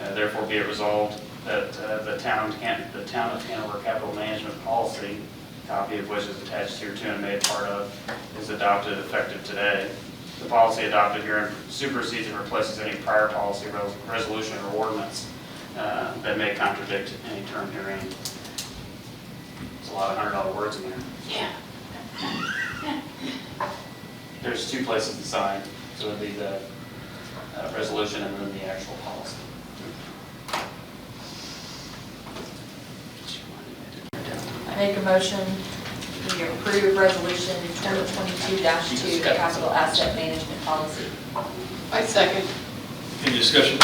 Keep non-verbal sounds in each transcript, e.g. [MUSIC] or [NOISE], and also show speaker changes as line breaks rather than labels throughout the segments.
uh, therefore be it resolved that uh, the town, can the town of Hanover Capital Management Policy, copy of which is attached here to and made part of, is adopted effective today. The policy adopted herein supersedes and replaces any prior policy, res- resolution, or ordinance uh, that may contradict any term herein. It's a lot of hundred dollar words in there.
Yeah.
There's two places to sign, so it'd be the uh, resolution and then the actual policy.
I make a motion, we approve resolution twenty twenty-two two, capital asset management policy.
I second.
Any discussion?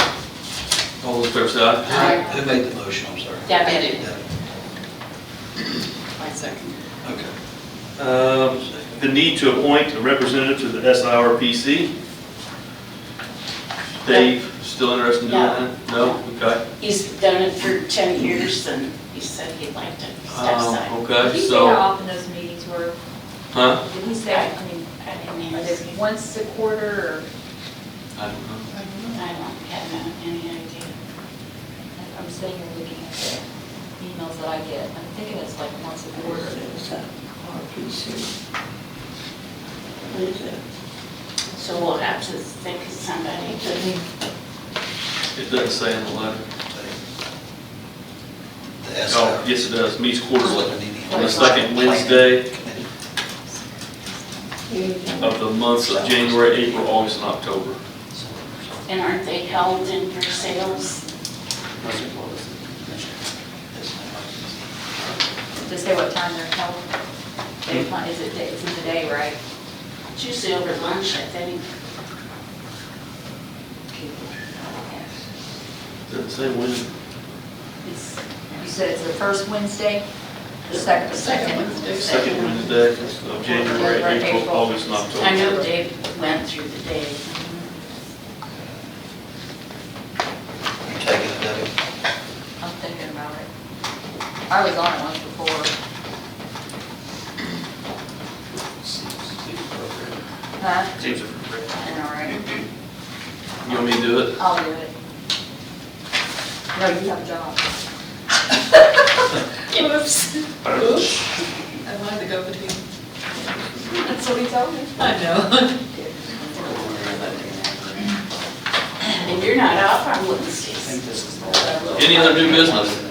All those in favor say aye.
Aye.
Who made the motion, I'm sorry?
Yeah,
I did.
Yeah,
I second.
Okay.
Um, The need to appoint a representative to the SIRPC. Dave, still interested in doing that? No. Okay.
He's done it for 10 years and he said he'd like to step
Um,
Oh,
aside.
Did
Okay,
he say how
so,
often those meetings were?
huh?
Did he say, I mean,
I didn't
are
ask
they
him.
once a quarter
I don't know.
I don't
I
know.
don't have any idea.
or, I'm sitting here looking at the emails that I get, I'm thinking it's like once a quarter.
So we'll have to think of somebody to,
It doesn't say in the letter.
The SR.
Oh, yes, it does, meets quarterly, on the
Quarterly.
second Wednesday of the months of January, April, August, and October.
and aren't they held in for sales?
Just say what time they're held.
Hmm?
They plan- Is it, it's in the day, right?
It's usually over lunch, I think.
Doesn't say when.
It's, you said it's the first Wednesday, the second, the
Second
second.
Wednesday.
Second Wednesday of January, April, August, and October.
I know Dave went through the day.
You taking it, Debbie?
I'm thinking about it. I was on it once before. Huh?
Seems appropriate.
I know, right?
You want me to do it?
I'll do it. No, you have a
[LAUGHS]
job.
Oops.
Am I the go-between?
That's what he told me.
I know.
If you're not off on Wednesdays.
Any other new business?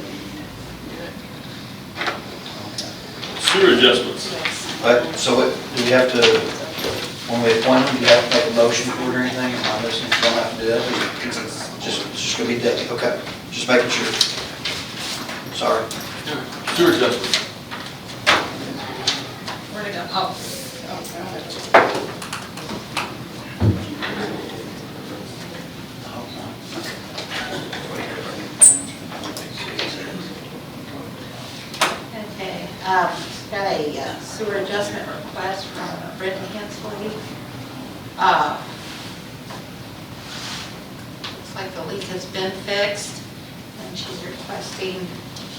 Sewer adjustments.
But, so what, do we have to, when we appoint them, do you have to make a motion for it or anything? Am I listening, you don't have to do that? Just, it's just gonna be Debbie, okay, just making sure. Sorry.
Sewer adjustments.
Where'd it go? Oh, oh, God.
Okay, um, got a uh, sewer adjustment request from Brittany Hensley. Uh, Looks like the leak has been fixed, and she's requesting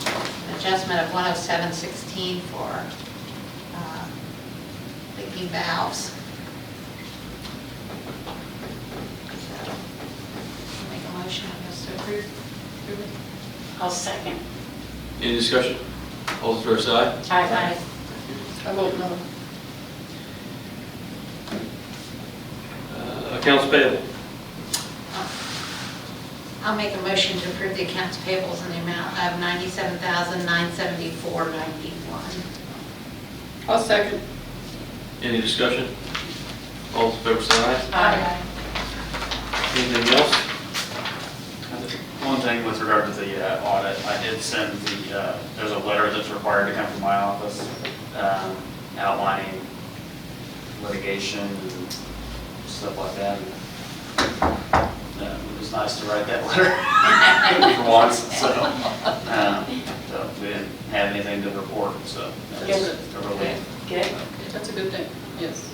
an adjustment of 107.16 for um, leaking valves. So, Make a motion, I guess, to approve. approve it.
I'll second.
Any discussion? All those in favor say aye.
Aye.
I vote no.
Uh, Accounts payable.
I'll make a motion to approve the accounts payables in the amount of $97,974.91.
I'll second.
Any discussion? All those in favor say aye.
Aye.
Anything else?
One thing with regard to the uh, audit, I did send the, uh, there's a letter that's required to come from my office um, outlining litigation and stuff like that. Uh, It was nice to write that [LAUGHS] letter for once, so, um, so we didn't have anything to report, so that's a relief.
Good.
That's a good thing, yes.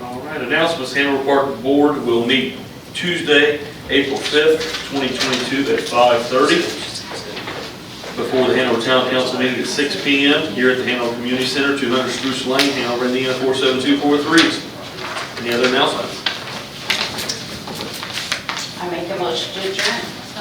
All right, announcements, Hanover Park Board will meet Tuesday, April 5th, 2022 at 5:30 before the Hanover Town Council meeting at 6 PM here at the Hanover Community Center, 200 Spruce Lane, Hanover, Indiana 47243. Any other announcements?
I make a motion to adjourn.